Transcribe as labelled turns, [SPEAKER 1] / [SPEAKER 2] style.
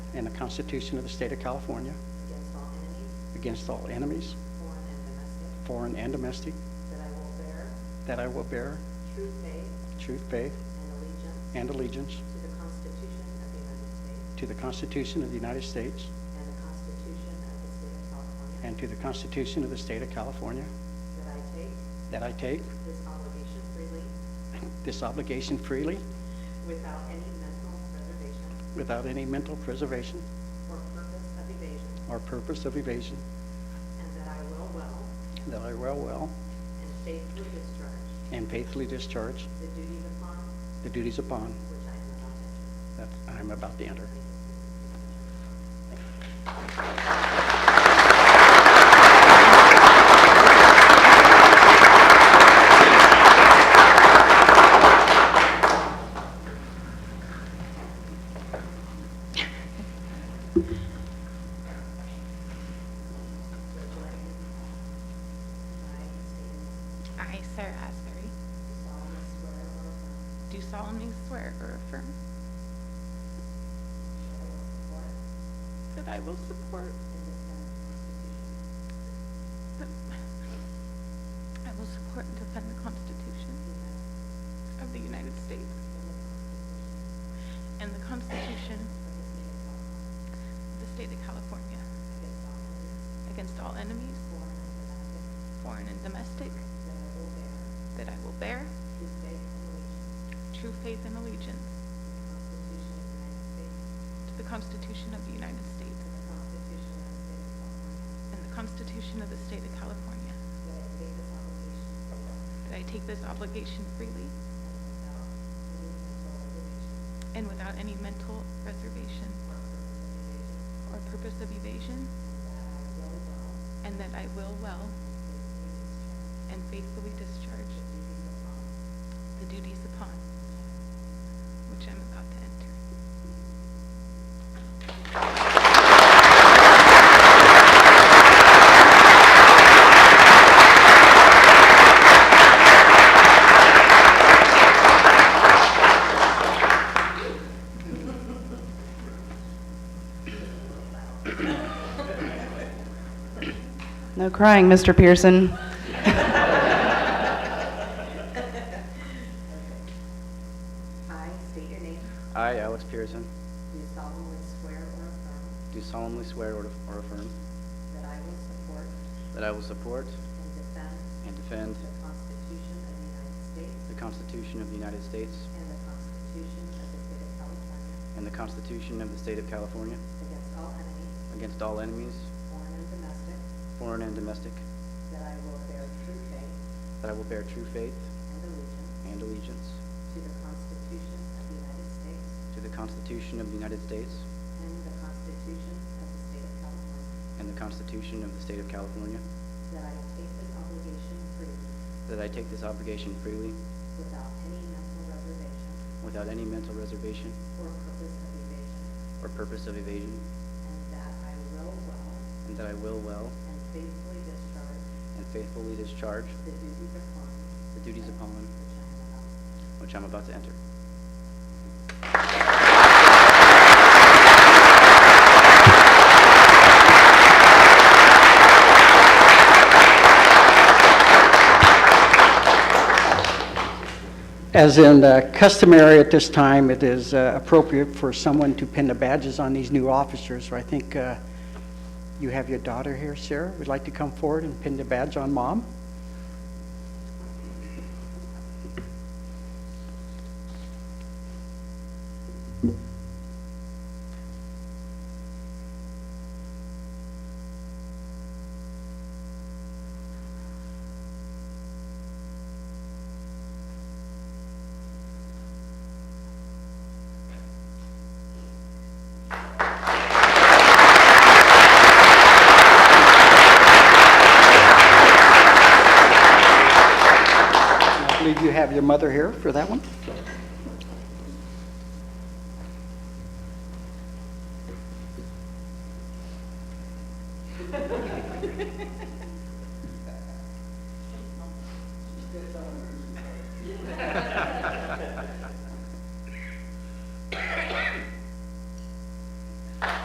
[SPEAKER 1] and the Constitution of the State of California
[SPEAKER 2] against all
[SPEAKER 1] against
[SPEAKER 2] enemies,
[SPEAKER 1] all enemies,
[SPEAKER 2] foreign and domestic,
[SPEAKER 1] foreign and domestic,
[SPEAKER 2] that I will
[SPEAKER 1] that
[SPEAKER 2] bear
[SPEAKER 1] I will bear
[SPEAKER 2] true faith
[SPEAKER 1] true faith
[SPEAKER 2] and allegiance
[SPEAKER 1] and allegiance
[SPEAKER 2] to the Constitution of the United States
[SPEAKER 1] to the Constitution of the United States
[SPEAKER 2] and the Constitution of the State of California,
[SPEAKER 1] and to the Constitution of the State of California,
[SPEAKER 2] that I take
[SPEAKER 1] that I take
[SPEAKER 2] this obligation freely
[SPEAKER 1] this obligation freely
[SPEAKER 2] without any mental reservation
[SPEAKER 1] without any mental preservation
[SPEAKER 2] or purpose of evasion,
[SPEAKER 1] or purpose of evasion,
[SPEAKER 2] and that I will well
[SPEAKER 1] that I will well
[SPEAKER 2] and faithfully discharge
[SPEAKER 1] and faithfully discharge
[SPEAKER 2] the duties upon
[SPEAKER 1] the duties upon
[SPEAKER 2] which
[SPEAKER 1] that
[SPEAKER 2] I am about to enter.
[SPEAKER 1] I am about to enter.
[SPEAKER 3] I, Sarah Asbury, do solemnly swear or affirm that I will support the, I will support and defend the Constitution of the United States and the Constitution of the State of California against all enemies, foreign and domestic, that I will bear true faith and allegiance to the Constitution of the United States and the Constitution of the State of California, that I take this obligation freely and without any mental reservation or purpose of evasion, and that I will well and faithfully discharge the duties upon which I'm about to enter.
[SPEAKER 4] No crying, Mr. Pearson.
[SPEAKER 2] I state your name,
[SPEAKER 5] I, Alex Pearson,
[SPEAKER 2] do solemnly swear or affirm
[SPEAKER 5] do solemnly swear or or affirm
[SPEAKER 2] that I will support
[SPEAKER 5] that I will support
[SPEAKER 2] and defend
[SPEAKER 5] and defend
[SPEAKER 2] the Constitution of the United States
[SPEAKER 5] the Constitution of the United States
[SPEAKER 2] and the Constitution of the State of California
[SPEAKER 5] and the Constitution of the State of California
[SPEAKER 2] against all enemies,
[SPEAKER 5] against all enemies,
[SPEAKER 2] foreign and domestic,
[SPEAKER 5] foreign and domestic,
[SPEAKER 2] that I will bear true faith
[SPEAKER 5] that I will bear true faith
[SPEAKER 2] and allegiance
[SPEAKER 5] and allegiance
[SPEAKER 2] to the Constitution of the United States
[SPEAKER 5] to the Constitution of the United States
[SPEAKER 2] and the Constitution of the State of California,
[SPEAKER 5] and the Constitution of the State of California,
[SPEAKER 2] that I will take this obligation freely
[SPEAKER 5] that I take this obligation freely
[SPEAKER 2] without any mental reservation
[SPEAKER 5] without any mental reservation
[SPEAKER 2] or purpose of evasion,
[SPEAKER 5] or purpose of evasion,
[SPEAKER 2] and that I will well
[SPEAKER 5] and that I will well
[SPEAKER 2] and faithfully discharge
[SPEAKER 5] and faithfully discharge
[SPEAKER 2] the duties upon
[SPEAKER 5] the duties upon
[SPEAKER 2] which I am about to enter.
[SPEAKER 5] which I'm about to enter.
[SPEAKER 1] As in uh, customary at this time, it is uh, appropriate for someone to pin the badges on these new officers. I think uh, you have your daughter here, Sarah. Would like to come forward and pin the badge on mom? I believe you have your mother here for that one.